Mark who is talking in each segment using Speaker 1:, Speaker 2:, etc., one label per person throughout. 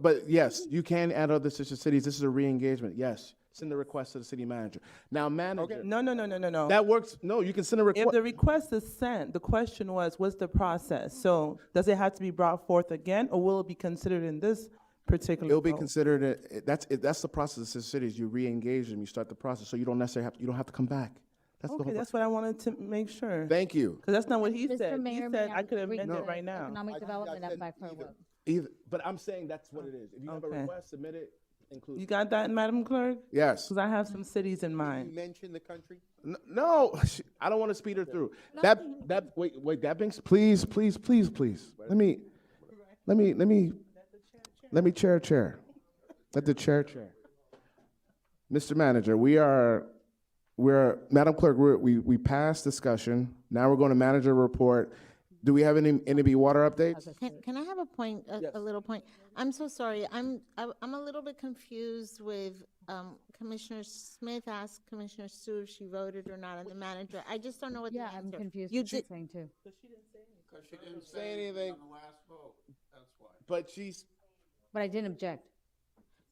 Speaker 1: but yes, you can add other sister cities. This is a re-engagement. Yes, send the request to the city manager. Now, manager,
Speaker 2: No, no, no, no, no, no.
Speaker 1: that works. No, you can send a
Speaker 2: If
Speaker 1: request.
Speaker 2: the request is sent, the question was, what's the process? So does it have to be brought forth again, or will it be considered in this particular?
Speaker 1: It'll be
Speaker 2: vote?
Speaker 1: considered. A, it- that's it, that's the process of sister cities. You re-engage them. You start the process, so you don't necessarily have you don't have to come back. That's the
Speaker 2: Okay,
Speaker 1: whole.
Speaker 2: that's what I wanted to make sure.
Speaker 1: Thank you.
Speaker 2: Because that's not what he
Speaker 3: Mr.
Speaker 2: said. He
Speaker 3: Mayor, may
Speaker 2: said
Speaker 3: I
Speaker 2: I could
Speaker 3: read
Speaker 2: amend
Speaker 3: the
Speaker 2: it right now.
Speaker 3: Economic Development Act by Pro Vote.
Speaker 1: Either, but I'm saying that's what it is. If you have a
Speaker 2: Oh, Okay.
Speaker 1: request, submit it. Include.
Speaker 2: You got that, Madam Clerk?
Speaker 1: Yes.
Speaker 2: Because I have some cities in
Speaker 4: You
Speaker 2: mind.
Speaker 4: mentioned the country?
Speaker 1: N- No, sh- I don't want to speed her through. That that wait wait that brings please please please please let me let me let me let me chair chair let the chair chair. Mr. Manager, we are we're Madam Clerk we're, we we passed discussion. Now we're going to manager report. Do we have any NB water updates?
Speaker 5: Can, can I have a point, a, a little point? I'm so sorry, I'm, I- I'm a little bit confused with, um, Commissioner Smith asked Commissioner Sue if she voted or not on the manager. I just don't know what the
Speaker 3: Yeah,
Speaker 5: answer.
Speaker 3: I'm confused
Speaker 5: You
Speaker 3: with
Speaker 5: did,
Speaker 3: this thing too.
Speaker 4: Because she didn't say anything. On the last vote, that's why.
Speaker 1: But she's
Speaker 3: But I didn't object.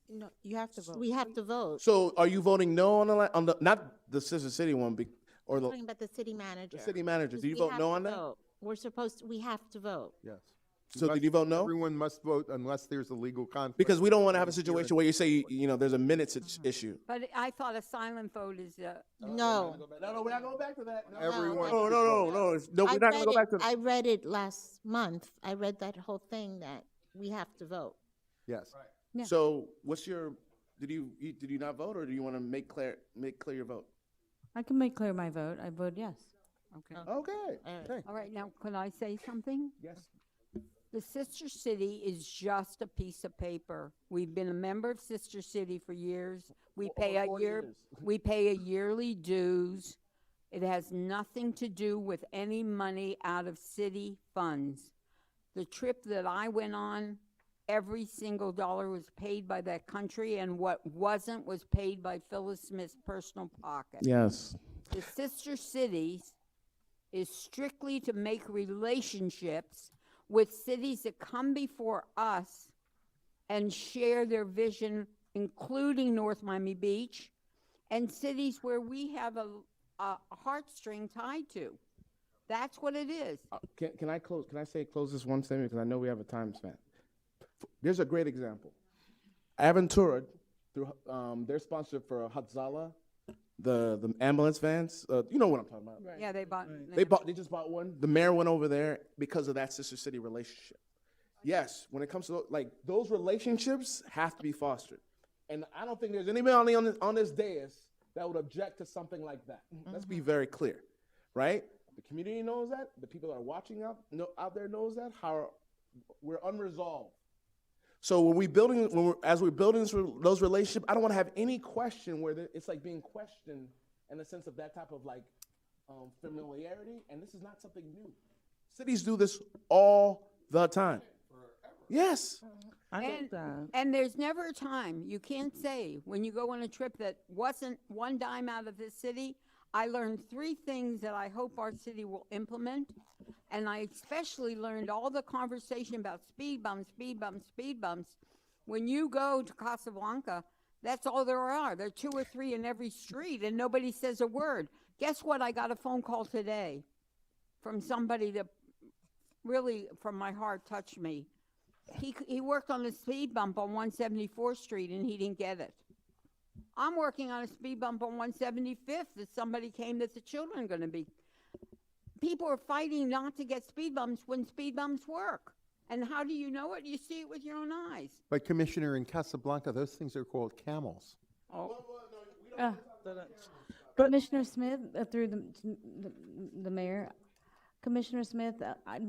Speaker 6: No, you have to vote.
Speaker 5: we have to vote,
Speaker 1: so are you voting no on the la- on the not the Sister City one be, or the
Speaker 5: talking about the city manager.
Speaker 1: city manager? Do you
Speaker 5: We
Speaker 1: vote
Speaker 5: have
Speaker 1: no
Speaker 5: to
Speaker 1: on that?
Speaker 5: vote. We're supposed, to- we have to vote.
Speaker 4: Yes.
Speaker 1: So did you vote no?
Speaker 4: Everyone must vote unless there's a legal conflict.
Speaker 1: Because we don't want to have a situation where you say, you know, there's a minutes itch- issue.
Speaker 7: But I thought a silent vote is, uh,
Speaker 5: No.
Speaker 1: No, no, we're not going back to that.
Speaker 4: Everyone.
Speaker 1: No, no, no, no, it's- no,
Speaker 5: I
Speaker 1: we're not going to
Speaker 5: read
Speaker 1: go
Speaker 5: it-
Speaker 1: back to that.
Speaker 5: I read it last month, I read that whole thing that we have to vote.
Speaker 4: Yes.
Speaker 3: Yeah.
Speaker 1: So what's your, did you, you- did you not vote or do you want to make clear, make clear your vote?
Speaker 3: I can make clear my vote. I vote yes.
Speaker 7: okay.
Speaker 1: Okay,
Speaker 5: right.
Speaker 1: okay.
Speaker 7: All right, now, could I say something?
Speaker 1: Yes.
Speaker 7: The Sister City is just a piece of paper. We've been a member of Sister City for years. We pay a
Speaker 1: four
Speaker 7: year,
Speaker 1: years.
Speaker 7: we pay a yearly dues. It has nothing to do with any money out of city funds. The trip that I went on, every single dollar was paid by that country, and what wasn't was paid by Phyllis Smith's personal pocket.
Speaker 1: Yes.
Speaker 7: the sister cities is strictly to make relationships with cities that come before us and share their vision, including North Miami Beach and cities where we have a, a heartstring tied to. That's what it is.
Speaker 1: Uh, Can, can I close, can I say, close this one statement? Because I know we have a time span. There's a great example. Aventura, through, um, they're sponsored for Hatzala, the, the ambulance vans. Uh, you know what I'm talking about?
Speaker 7: Yeah, they bought.
Speaker 1: They bought. They just bought one. The mayor went over there because of that sister city relationship. Yes, when it comes to tho- like those relationships have to be fostered, and I don't think there's anybody on this, on this dais that would object to something like that. Let's be very clear, right? The community knows that. The people that are watching out know, out there knows that. How we're unresolved. So when we building, when we're, as we're building this, re- those relationships, I don't want to have any question where the, it's like being questioned in the sense of that type of like um, familiarity, and this is not something new. Cities do this all the time. Yes,
Speaker 2: I
Speaker 7: And,
Speaker 2: get that.
Speaker 7: and there's never a time, you can't say, when you go on a trip that wasn't one dime out of the city. I learned three things that I hope our city will implement. And I especially learned all the conversation about speed bumps, speed bumps, speed bumps. When you go to Casablanca, that's all there are. There are two or three in every street and nobody says a word. Guess what? I got a phone call today from somebody that really, from my heart, touched me. He, c- he worked on a speed bump on 174th Street and he didn't get it. I'm working on a speed bump on 175th that somebody came that the children are going to be. People are fighting not to get speed bumps when speed bumps work. And how do you know it? You see it with your own eyes.
Speaker 4: But Commissioner, in Casablanca, those things are called camels.
Speaker 3: Uh. Commissioner Smith, uh, through the, the- the mayor, Commissioner Smith, uh, I,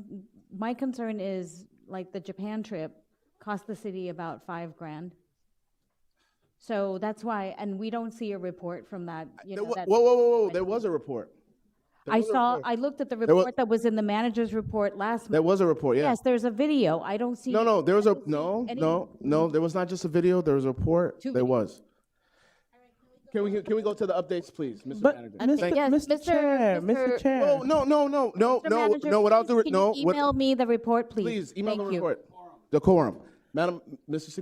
Speaker 3: my concern is like the Japan trip cost the city about five grand. So that's why, and we don't see a report from that,
Speaker 1: There
Speaker 3: you know,
Speaker 1: wa-
Speaker 3: that.
Speaker 1: whoa, whoa, whoa, whoa! There was a report.
Speaker 3: I saw, I looked at the
Speaker 1: wa-
Speaker 3: report that was in the manager's report last
Speaker 1: There
Speaker 3: month.
Speaker 1: was a report. Yeah.
Speaker 3: Yes, there's a video. I don't see.
Speaker 1: No, no, there was a no,
Speaker 3: any-
Speaker 1: no, no. There was not just a video. There was a report.
Speaker 3: Two
Speaker 1: There was. Can we can we go to the updates, please, Mr.
Speaker 2: But,
Speaker 1: Manager?
Speaker 2: Mr.
Speaker 1: Thank-
Speaker 3: Yes,
Speaker 2: Mr.
Speaker 3: Mr.
Speaker 2: Chair, Mr.
Speaker 3: Mr.
Speaker 2: Chair.
Speaker 1: Oh no, no, no, no,
Speaker 3: Mr.
Speaker 1: no,
Speaker 3: Manager,
Speaker 1: no! Without the
Speaker 3: please,
Speaker 1: re-
Speaker 3: can you
Speaker 1: no, what-
Speaker 3: Email me the report, please.
Speaker 1: please email the
Speaker 3: Thank you.
Speaker 1: report. Decorum, Madam, Mr.